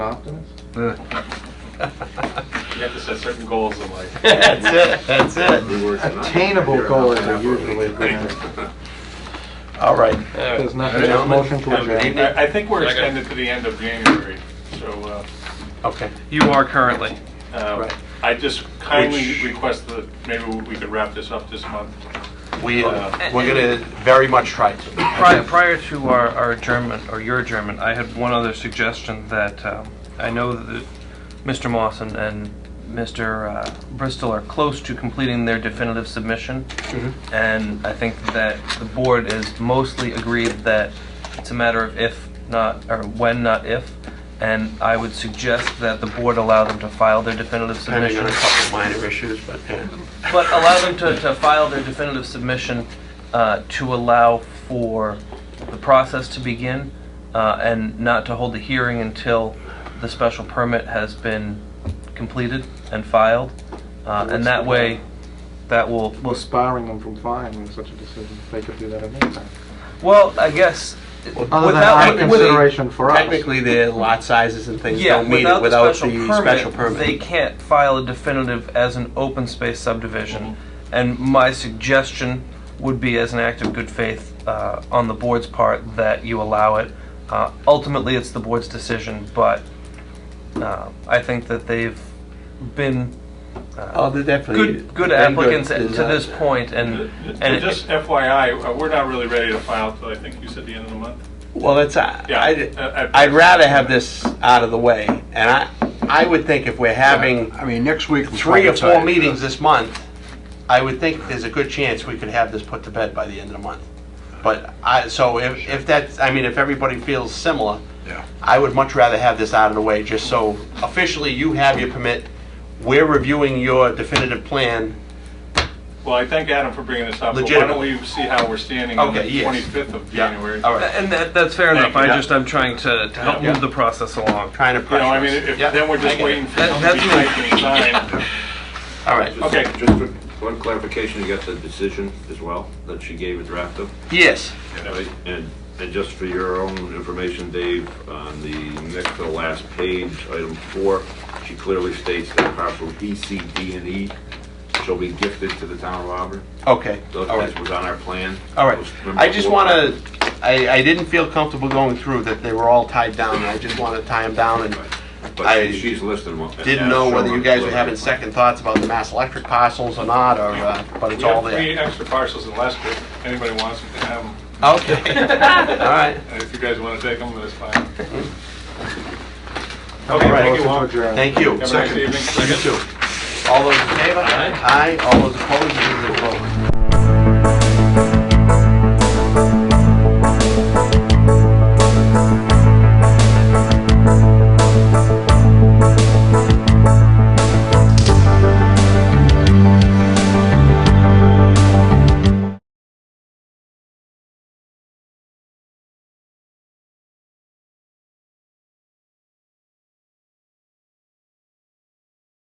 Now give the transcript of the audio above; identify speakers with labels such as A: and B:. A: Optimist?
B: You have to set certain goals in life.
C: That's it, that's it.
A: Attainable goals are usually granted.
C: All right.
A: There's nothing else, motion to adjourn.
B: I I think we're extended to the end of January, so
C: Okay.
D: You are currently.
B: uh, uh,
C: Right.
B: I just kindly
C: Which-
B: request that maybe we could wrap this up this month.
C: We, uh, we're going to very much try to.
D: Prior, prior to our, our adjournment, or your adjournment, I had one other suggestion that, um, I know that Mr. Moss and, and Mr. uh, Bristol are close to completing their definitive submission. And I think that the board is mostly agreed that it's a matter of if, not, or when, not if. And I would suggest that the board allow them to file their definitive
C: Depending on
D: submission.
C: a couple of minor issues, but, yeah.
D: But allow them to, to file their definitive submission uh, to allow for the process to begin uh, and not to hold the hearing until the special permit has been completed and filed. Uh, And that way, that will,
A: We're
D: will,
A: sparring them from filing such a decision. They could do that at any time.
D: well, I guess,
A: Other than our
D: without, with-
A: consideration for us.
C: Technically, the lot sizes and things
D: yeah,
C: don't meet
D: without
C: it
D: the
C: without
D: special
C: the special
D: permit,
C: permit.
D: they can't file a definitive as an open space subdivision. And my suggestion would be, as an act of good faith uh, on the board's part, that you allow it. Uh, Ultimately, it's the board's decision, but uh, I think that they've been
C: Oh,
D: uh,
C: they're definitely.
D: good, good
C: they're
D: applicants to
C: good
D: this
C: design.
D: point, and, and it-
B: Just FYI, uh, we're not really ready to file till I think you said the end of the month.
C: Well, that's, uh, I,
B: Yeah, Uh,
C: I'd-
B: I- I-
C: I'd rather have this out of the way. And I, I would think if we're having
E: I mean, next week.
C: three or four meetings this month, I would think there's a good chance we could have this put to bed by the end of the month. But I, so if, if that's, I mean, if everybody feels similar,
E: Yeah.
C: I would much rather have this out of the way, just so officially you have your permit. We're reviewing your definitive plan.
B: Well, I thank Adam for bringing this up, but why
C: Legitimate.
B: don't we see how we're standing on the
C: Okay, yes.
B: 25th of January?
C: All right,
D: and that- that's fair enough. I
B: Yeah.
D: just, I'm trying to to help
C: Yeah.
D: move the process along.
C: trying to
B: You know, I mean,
C: pressure us.
B: if,
C: Yeah,
B: then we're
C: I
B: just
C: get it.
B: waiting for
D: That-
B: something to be
D: that's-
B: typed and signed.
C: All right,
B: Okay.
F: Just for one clarification, you got the decision as well that she gave a draft of?
C: yes,
F: Right. And, and just for your own information, Dave, on the next to the last page, item four, she clearly states that parcel D, C, D, and E shall be gifted to the town of Auburn.
C: okay, all
F: Those-
C: right.
F: That was on our plan.
C: All right.
F: Those- remember
C: I just
F: four-
C: want to, I, I didn't feel comfortable going through that they were all tied down. and I just want to tie them down and
F: But
C: I
F: she- she's listed one.
C: didn't know whether you guys were having second thoughts about the Mass Electric parcels or not, or, uh, but it's
B: We
C: all
B: have three
C: there.
B: extra parcels in Leicester, if anybody wants them, to have them.
C: Okay, all right.
B: And if you guys want to take them, that's fine.
A: Okay,
B: Okay, thank
A: motion
B: you
A: to
B: all.
A: adjourn.
C: Thank you.
B: Have a nice evening.
C: You too. All those in favor? Aye. All those opposed? It is opposed.